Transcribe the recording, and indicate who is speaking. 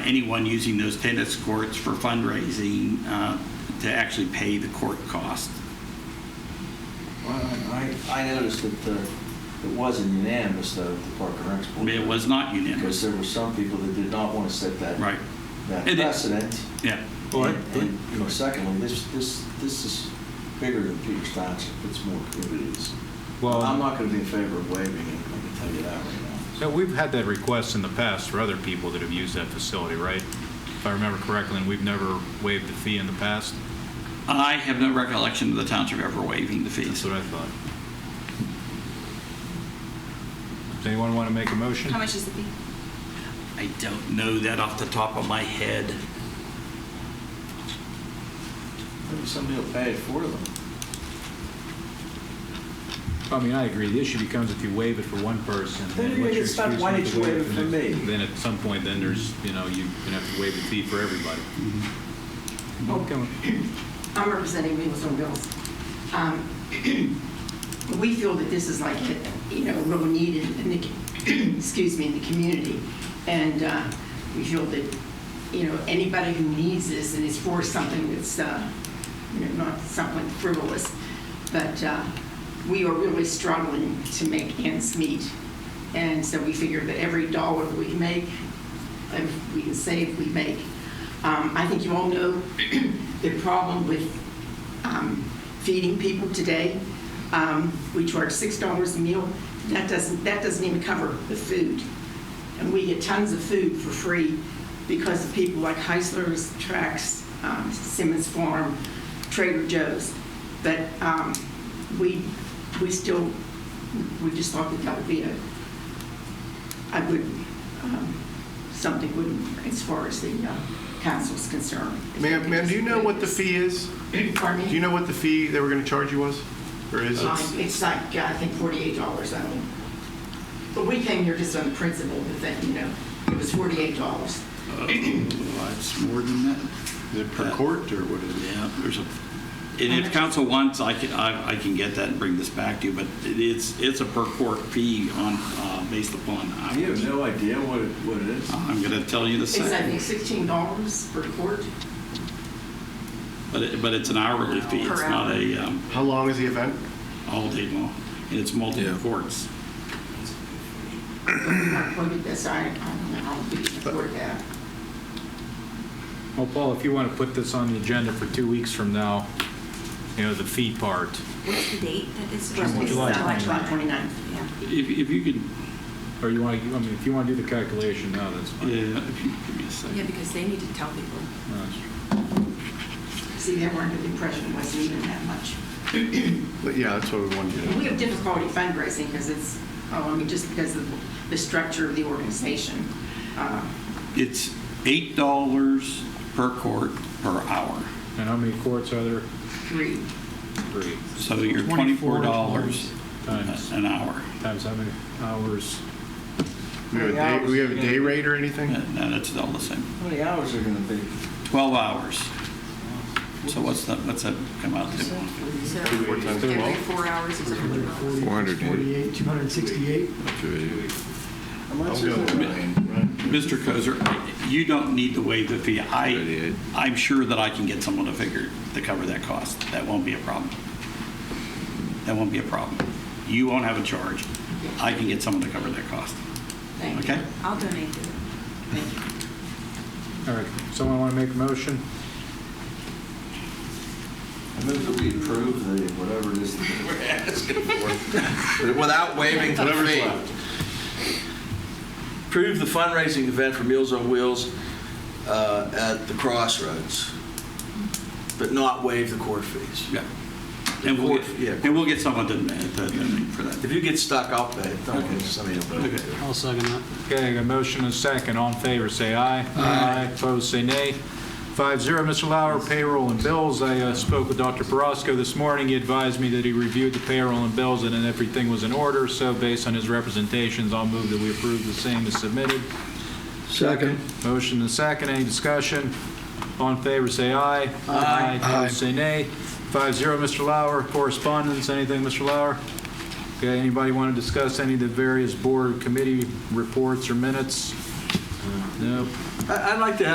Speaker 1: anyone using those tennis courts for fundraising uh, to actually pay the court cost.
Speaker 2: Well, I, I I noticed that uh, it wasn't unanimous, though, at the Park and Rec
Speaker 1: I mean, It
Speaker 2: Board.
Speaker 1: was not
Speaker 2: Because
Speaker 1: unanimous.
Speaker 2: there were some people that did not want to set that.
Speaker 1: Right.
Speaker 2: That
Speaker 1: It is.
Speaker 2: precedent.
Speaker 1: Yeah.
Speaker 3: All right.
Speaker 2: And- And secondly, this, this, this is bigger than Peters Township, it's more communities.
Speaker 3: Well-
Speaker 2: I'm not going to be in favor of waiving it, I can tell you that right now.
Speaker 3: So we've had that request in the past for other people that have used that facility, right? If I remember correctly, and we've never waived the fee in the past?
Speaker 1: I have no recollection of the township ever waiving the
Speaker 3: That's
Speaker 1: fees.
Speaker 3: what I thought. Does anyone want to make a motion?
Speaker 4: How much is the fee?
Speaker 1: I don't know that off the top of my head.
Speaker 2: Maybe somebody will pay it for them.
Speaker 3: I mean, I agree. The issue becomes if you waive it for one person,
Speaker 2: Then
Speaker 3: then
Speaker 2: you're
Speaker 3: what's
Speaker 2: gonna get stuck,
Speaker 3: your excuse
Speaker 2: why
Speaker 3: not
Speaker 2: did
Speaker 3: to
Speaker 2: you
Speaker 3: waive
Speaker 2: waive
Speaker 3: it
Speaker 2: it
Speaker 3: for
Speaker 2: for
Speaker 3: next-
Speaker 2: me?
Speaker 3: Then at some point, then there's, you know, you're going to have to waive the fee for everybody.
Speaker 2: Mm-hmm.
Speaker 3: Okay.
Speaker 5: I'm representing Meals on Wheels. Um, We feel that this is like, you know, real needed in the, excuse me, in the community. And uh, we feel that, you know, anybody who needs this and is for something that's, uh, you know, not something frivolous, but uh, we are really struggling to make ends meet. And so we figure that every dollar we make, if we can save, we make. Um, I think you all know the problem with um, feeding people today. Um, We charge six dollars a meal. That doesn't, that doesn't even cover the food. And we get tons of food for free because of people like Heisler's, Trax, um, Simmons Farm, Trader Joe's. But um, we, we still, we just thought that that would be a, I would, um, something would, as far as the uh, council's concerned.
Speaker 6: Ma'am, ma'am, do you know what the fee is?
Speaker 5: Pardon
Speaker 6: Do
Speaker 5: me?
Speaker 6: you know what the fee they were going to charge you was? Or is
Speaker 5: Uh,
Speaker 6: it?
Speaker 5: It's like, I think forty-eight dollars, I mean. But we came here just on the principle of the thing, you know, it was forty-eight dollars.
Speaker 1: Uh, It's more than that.
Speaker 6: Is it per court or what is it?
Speaker 1: Yeah, there's a, and if council wants, I can, I I can get that and bring this back to you, but it's, it's a per court fee on, uh, based upon
Speaker 2: You have
Speaker 1: hours.
Speaker 2: no idea what it, what it is.
Speaker 1: I'm going to tell you the
Speaker 5: It's, I think,
Speaker 1: same,
Speaker 5: sixteen dollars per court.
Speaker 1: but it, but it's an hourly fee. It's
Speaker 5: Per
Speaker 1: not
Speaker 5: hour.
Speaker 1: a um,
Speaker 6: How long is the event?
Speaker 1: all day long, and it's multiple
Speaker 7: Yeah.
Speaker 1: courts.
Speaker 5: I'm not quoted this, I, I don't know how we afford that.
Speaker 3: Well, Paul, if you want to put this on the agenda for two weeks from now, you know, the fee part,
Speaker 4: What's the date that is?
Speaker 3: July
Speaker 5: It's, uh, like July
Speaker 3: 29th.
Speaker 5: twenty-ninth.
Speaker 4: Yeah.
Speaker 1: If, if you could,
Speaker 3: or you want to, I mean, if you want to do the calculation now, that's fine. Uh,
Speaker 1: yeah, uh, if you give me a second.
Speaker 4: Yeah, because they need to tell people.
Speaker 3: No, it's-
Speaker 5: See, they were under the impression it wasn't even that much.
Speaker 6: But Yeah, that's what we wanted to know.
Speaker 5: We have difficulty fundraising because it's, oh, I mean, just because of the structure of the organization. Uh,
Speaker 1: It's eight dollars per court per hour.
Speaker 3: And how many courts are there?
Speaker 5: Three,
Speaker 3: Three.
Speaker 1: So you're twenty-four dollars
Speaker 3: Times,
Speaker 1: an hour.
Speaker 3: times how many hours?
Speaker 6: We have a day- we have a day rate or anything?
Speaker 1: No, that's all the same.
Speaker 2: How many hours are going to be?
Speaker 1: Twelve hours. So what's that, what's that come out to?
Speaker 4: So
Speaker 6: Four times
Speaker 4: every
Speaker 6: twelve?
Speaker 4: four hours is a hundred dollars.
Speaker 7: 400.
Speaker 8: 48, 268.
Speaker 2: How much is
Speaker 6: I'll go.
Speaker 2: it?
Speaker 1: Mr. Kozer, you don't need to waive the fee. I,
Speaker 7: Thirty-eight.
Speaker 1: I'm sure that I can get someone to figure, to cover that cost. That won't be a problem. That won't be a problem. You won't have a charge. I can get someone to cover that cost,
Speaker 5: thank you.
Speaker 1: okay?
Speaker 4: I'll donate to them.
Speaker 3: All right, someone want to make a motion?
Speaker 2: I move that we approve the, whatever it is that we're asking for.
Speaker 7: Without waiving the
Speaker 2: Whatever's
Speaker 7: fee.
Speaker 2: left.
Speaker 7: Approve the fundraising event for Meals on Wheels uh, at the Crossroads, but not waive the court fees.
Speaker 1: Yeah. And we'll
Speaker 7: Yeah.
Speaker 1: get, and we'll get someone to, to- to- for that.
Speaker 7: If you get stuck, I'll pay. Don't get somebody to pay.
Speaker 9: I'll second that.
Speaker 3: Okay, a motion and a second. All in favor, say aye. Aye. Opposed, say nay. Five zero. Mr. Lauer, payroll and bills. I uh, spoke with Dr. Perosco this morning. He advised me that he reviewed the payroll and bills and that everything was in order. So based on his representations, I'll move that we approve the same as submitted.
Speaker 8: Second.
Speaker 3: Motion and second, any discussion? All in favor, say aye. Aye. Opposed, say nay. Five zero, Mr. Lauer, correspondence, anything, Mr. Lauer? Okay, anybody want to discuss any of the various board committee reports or minutes? No.
Speaker 7: I- I'd like to have